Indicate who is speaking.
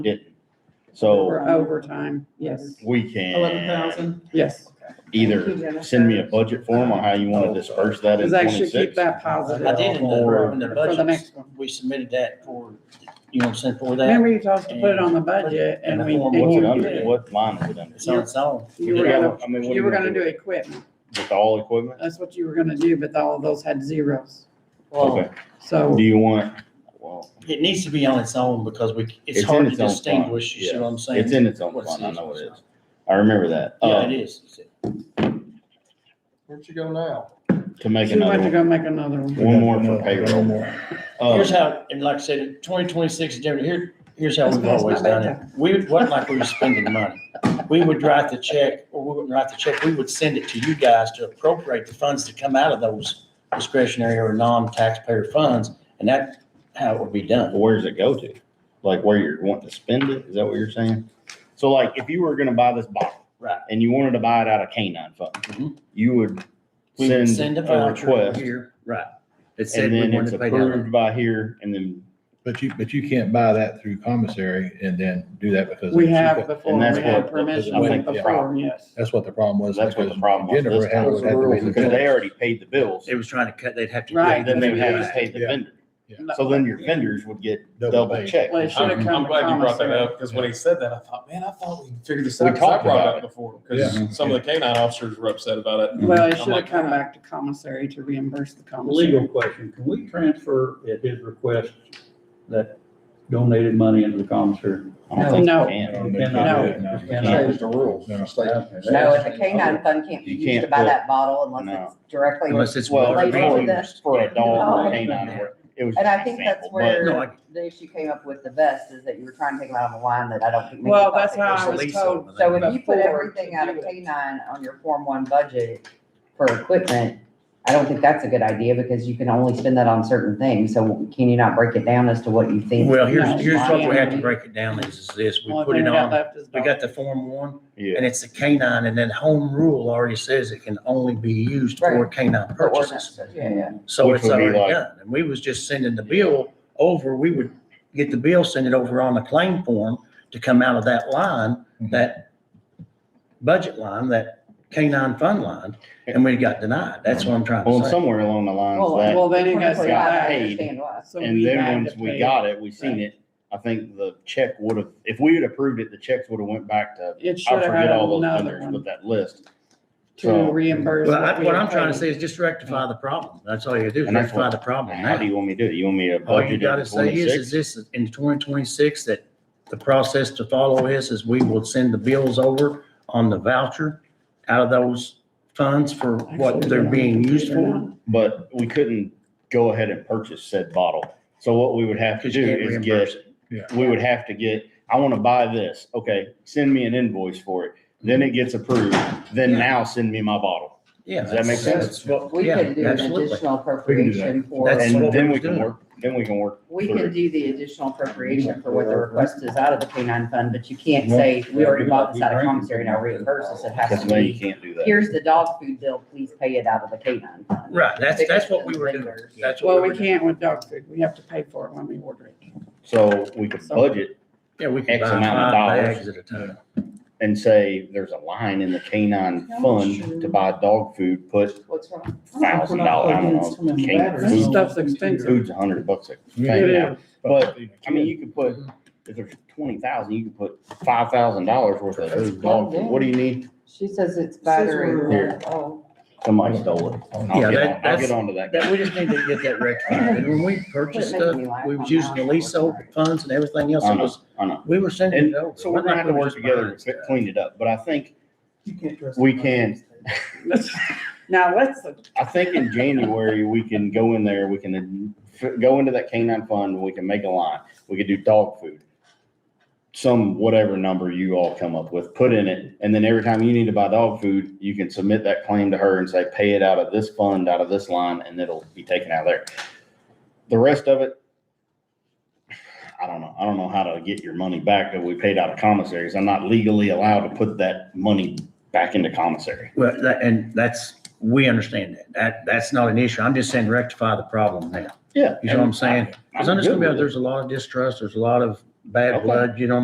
Speaker 1: didn't. So
Speaker 2: For overtime, yes,
Speaker 1: we can
Speaker 2: yes.
Speaker 1: either send me a budget form or how you want to disperse that in
Speaker 2: Because I should keep
Speaker 1: twenty-six.
Speaker 2: that
Speaker 3: I
Speaker 2: positive
Speaker 3: did in the, in the
Speaker 2: for the
Speaker 3: budget,
Speaker 2: next one.
Speaker 3: we submitted that for, you want to send for that?
Speaker 2: Remember you told us to put it on the budget and we. and
Speaker 1: What's it
Speaker 2: you
Speaker 1: under,
Speaker 2: did.
Speaker 1: what line is it under?
Speaker 3: It's on its own.
Speaker 2: You were
Speaker 1: Yeah,
Speaker 2: gonna,
Speaker 1: I mean, what
Speaker 2: you were
Speaker 1: do
Speaker 2: gonna do equipment.
Speaker 1: With all equipment?
Speaker 2: That's what you were gonna do, but all of those had zeros.
Speaker 3: Well,
Speaker 1: Okay,
Speaker 2: So
Speaker 1: do you want, well,
Speaker 3: it needs to be on its own because we, it's
Speaker 1: It's
Speaker 3: hard
Speaker 1: in
Speaker 3: to
Speaker 1: its own fund,
Speaker 3: distinguish, you see what I'm saying?
Speaker 1: it's in its own
Speaker 3: What's
Speaker 1: fund, I know
Speaker 3: it
Speaker 1: it
Speaker 3: is.
Speaker 1: is. I remember that.
Speaker 3: Yeah,
Speaker 1: Uh,
Speaker 3: it is.
Speaker 4: Where'd you go now?
Speaker 1: To make
Speaker 2: she went to
Speaker 1: another
Speaker 2: go make another one.
Speaker 1: one, one more for payroll. Uh,
Speaker 3: Here's how, and like I said, twenty twenty-six, Jeremy, here, here's how
Speaker 2: That's
Speaker 3: we've
Speaker 2: past my
Speaker 3: always done it. We, it wasn't like we were spending money. We would write the check, or we wouldn't write the check, we would send it to you guys to appropriate the funds to come out of those discretionary or non-taxpayer funds, and that, how it would be done.
Speaker 1: where's it go to? Like where you're wanting to spend it? Is that what you're saying? So like if you were gonna buy this bottle.
Speaker 3: Right.
Speaker 1: And you wanted to buy it out of canine fund,
Speaker 3: Mhm.
Speaker 1: you would
Speaker 3: We would
Speaker 1: send
Speaker 3: send a
Speaker 1: a
Speaker 3: voucher over
Speaker 1: request
Speaker 3: here. Right.
Speaker 5: It said
Speaker 1: and
Speaker 5: we
Speaker 1: then it's
Speaker 5: wanted to pay down.
Speaker 1: approved by here and then,
Speaker 4: But you, but you can't buy that through commissary and then do that because.
Speaker 2: We
Speaker 4: it's-
Speaker 2: have before, we
Speaker 1: that's
Speaker 2: had
Speaker 1: what-
Speaker 2: permission
Speaker 4: I think the
Speaker 2: before,
Speaker 1: problem-
Speaker 2: yes.
Speaker 4: That's what the problem was.
Speaker 1: that's what the
Speaker 4: because
Speaker 1: problem was.
Speaker 4: Jennifer
Speaker 1: this
Speaker 4: had-
Speaker 1: time.
Speaker 4: would have to wait
Speaker 1: Because they
Speaker 4: until-
Speaker 1: already paid the bills,
Speaker 5: It was trying to cut, they'd have to.
Speaker 2: Right.
Speaker 1: then they would have to
Speaker 2: Yeah.
Speaker 1: pay the
Speaker 4: Yeah.
Speaker 1: vendor. So then your vendors would get double
Speaker 4: pay.
Speaker 1: checked.
Speaker 2: Well, it should have
Speaker 6: I'm,
Speaker 2: come
Speaker 6: I'm
Speaker 2: to
Speaker 6: glad you brought that
Speaker 2: commissary.
Speaker 6: up, because when he said that, I thought, man, I thought we figured this
Speaker 1: We
Speaker 6: out, 'cause I
Speaker 1: talked
Speaker 6: brought
Speaker 1: about
Speaker 6: it up before, because some of the canine officers were upset about it.
Speaker 2: Well, it
Speaker 6: I'm
Speaker 2: should have
Speaker 6: like,
Speaker 2: come back to commissary to reimburse the commissary.
Speaker 7: Legal question, can we transfer at his request that donated money into the commissary?
Speaker 1: I don't think
Speaker 2: No.
Speaker 1: you can.
Speaker 4: they
Speaker 7: No.
Speaker 4: can't do it,
Speaker 7: And
Speaker 1: Yeah.
Speaker 7: I-
Speaker 1: Change
Speaker 4: the rules.
Speaker 8: No, if a canine fund can't be
Speaker 1: You
Speaker 8: used
Speaker 1: can't
Speaker 8: to buy
Speaker 1: put-
Speaker 8: that bottle unless
Speaker 1: no.
Speaker 8: it's directly.
Speaker 5: Unless it's.
Speaker 1: Well,
Speaker 8: Like for
Speaker 5: Well,
Speaker 8: the-
Speaker 1: For a dog or
Speaker 8: Oh.
Speaker 1: a canine, or- it was.
Speaker 8: And
Speaker 1: just
Speaker 8: I
Speaker 1: an
Speaker 8: think that's
Speaker 1: example, but-
Speaker 5: No,
Speaker 8: where
Speaker 5: I-
Speaker 8: the issue came up with the vest is that you were trying to take them out of a line that I don't think. many
Speaker 2: Well,
Speaker 8: thought
Speaker 2: that's
Speaker 8: they
Speaker 2: how
Speaker 8: could.
Speaker 2: I was told.
Speaker 8: So if you put
Speaker 2: before
Speaker 8: everything
Speaker 2: to
Speaker 8: out of
Speaker 2: do it.
Speaker 8: K nine on your Form One budget for equipment, I don't think that's a good idea because you can only spend that on certain things. So can you not break it down as to what you think?
Speaker 5: Well,
Speaker 2: No,
Speaker 5: here's, here's what we have to
Speaker 2: Miami.
Speaker 5: break it down is, is this, we
Speaker 2: Only
Speaker 5: put
Speaker 2: thing
Speaker 5: it
Speaker 2: we got
Speaker 5: on,
Speaker 2: left is
Speaker 5: we
Speaker 2: dog.
Speaker 5: got the Form One,
Speaker 1: Yeah.
Speaker 5: and it's a canine, and then home rule already says it can only be used for
Speaker 8: Right.
Speaker 5: canine
Speaker 8: The ordinance,
Speaker 5: purchases.
Speaker 8: Yeah, yeah.
Speaker 5: So
Speaker 1: Which
Speaker 5: it's
Speaker 1: would be
Speaker 5: already
Speaker 1: like-
Speaker 5: done, and we was just sending the bill over, we would get the bill, send it over on the claim form to come out of that line,
Speaker 1: Mm-hmm.
Speaker 4: Mhm.
Speaker 5: that budget line, that canine fund line, and we got denied, that's what I'm trying
Speaker 1: Well,
Speaker 5: to say.
Speaker 1: somewhere along the lines
Speaker 8: Well,
Speaker 1: that,
Speaker 2: Well, then it got
Speaker 8: Twenty-four five, I
Speaker 1: paid.
Speaker 8: understand why.
Speaker 2: So
Speaker 1: and
Speaker 2: we
Speaker 1: then
Speaker 2: had to
Speaker 1: once we
Speaker 2: pay.
Speaker 1: got it, we seen it, I think the check would have, if we had approved it, the checks would have went back to,
Speaker 2: It
Speaker 1: I
Speaker 2: should have had
Speaker 1: forget all those
Speaker 2: another
Speaker 1: vendors
Speaker 2: one
Speaker 1: with that list.
Speaker 2: to
Speaker 1: so-
Speaker 2: reimburse.
Speaker 5: Well, I-
Speaker 2: we
Speaker 5: what
Speaker 2: had
Speaker 5: I'm trying
Speaker 2: paid.
Speaker 5: to say is just rectify the problem, that's all you do,
Speaker 1: And that's
Speaker 5: rectify
Speaker 1: what-
Speaker 5: the problem
Speaker 1: How
Speaker 5: now.
Speaker 1: do you want me to do it? You want me to
Speaker 5: Oh, All you
Speaker 1: budget
Speaker 5: gotta
Speaker 1: it
Speaker 5: say is, is
Speaker 1: twenty-six?
Speaker 5: this, in twenty twenty-six, that the process to follow is, is we will send the bills over on the voucher out of those funds for what
Speaker 2: Actually,
Speaker 5: they're
Speaker 2: they're
Speaker 5: being
Speaker 2: not.
Speaker 5: used
Speaker 2: They're
Speaker 5: for.
Speaker 2: not.
Speaker 1: But we couldn't go ahead and purchase said bottle. So what we would have to
Speaker 5: Because you
Speaker 1: do
Speaker 5: can't
Speaker 1: is
Speaker 5: reimburse
Speaker 1: get, we would have to get, I want to buy this. Okay, send me an invoice for it. Then it gets approved. Then
Speaker 5: Yeah.
Speaker 1: now send me my bottle.
Speaker 5: Yeah.
Speaker 1: Does that make
Speaker 5: that's-
Speaker 1: sense?
Speaker 5: that's what-
Speaker 8: We
Speaker 5: yeah,
Speaker 8: could do an
Speaker 5: absolutely.
Speaker 8: additional
Speaker 4: We can do that.
Speaker 8: appropriation for.
Speaker 5: That's what
Speaker 1: And
Speaker 5: we
Speaker 1: then
Speaker 5: were
Speaker 1: we can
Speaker 5: doing.
Speaker 1: work, then we can work.
Speaker 8: We
Speaker 1: through
Speaker 8: can
Speaker 1: it.
Speaker 8: do the additional appropriation for what the request is out of the K nine fund, but you can't say, we already bought this out of commissary, now reimburse us. It has
Speaker 1: Because
Speaker 8: to
Speaker 1: now you
Speaker 8: be,
Speaker 1: can't do that.
Speaker 8: here's the dog food bill, please pay it out of the K nine fund.
Speaker 5: Right, that's, that's what we
Speaker 8: Because
Speaker 5: were
Speaker 8: it's
Speaker 5: doing,
Speaker 8: lingers.
Speaker 5: that's
Speaker 2: Well,
Speaker 5: what we
Speaker 2: we
Speaker 5: were doing.
Speaker 2: can't with dog food. We have to pay for it when we order it.
Speaker 1: So we could budget
Speaker 5: Yeah, we can
Speaker 1: X
Speaker 5: buy
Speaker 1: amount of
Speaker 5: five
Speaker 1: dollars.
Speaker 5: bags at a time.
Speaker 1: and say there's a line in the canine fund to buy dog food, put
Speaker 8: What's wrong?
Speaker 1: thousand dollars, I don't know, canine
Speaker 2: This
Speaker 1: food,
Speaker 2: stuff's expensive.
Speaker 1: food's a hundred bucks a
Speaker 2: It
Speaker 1: thing now.
Speaker 2: is.
Speaker 1: But, I mean, you could put, if there's twenty thousand, you could put five thousand dollars worth of food, dog food, what do you need?
Speaker 8: She says it's
Speaker 1: Here.
Speaker 8: battery. Oh,
Speaker 1: Somebody stole it. I'll
Speaker 5: Yeah,
Speaker 1: get,
Speaker 5: that-
Speaker 1: on- I'll
Speaker 5: that's-
Speaker 1: get onto that.
Speaker 5: That, we just need to get that rectified. And when we purchased
Speaker 8: Quit making
Speaker 5: stuff,
Speaker 8: me laugh.
Speaker 5: we was using the lease over funds and everything else,
Speaker 1: I
Speaker 5: it
Speaker 1: know,
Speaker 5: was,
Speaker 1: I know.
Speaker 5: we were sending
Speaker 1: And
Speaker 5: it over.
Speaker 1: so we're gonna have to work together to fi- clean it up, but I think, We can.
Speaker 2: Let's- Now, let's,
Speaker 1: I think in January, we can go in there, we can f- go into that canine fund, we can make a line, we could do dog food. Some whatever number you all come up with, put in it, and then every time you need to buy dog food, you can submit that claim to her and say, pay it out of this fund, out of this line, and it'll be taken out of there. The rest of it, I don't know, I don't know how to get your money back that we paid out of commissaries, I'm not legally allowed to put that money back into commissary.
Speaker 5: Well, that, and that's, we understand that. That, that's not an issue. I'm just saying rectify the problem now.
Speaker 1: Yeah.
Speaker 5: You know what I'm saying? Cause I
Speaker 1: I'm good
Speaker 5: understand
Speaker 1: with it.
Speaker 5: there's a lot of distrust, there's a lot of bad
Speaker 1: Okay.
Speaker 5: blood, you know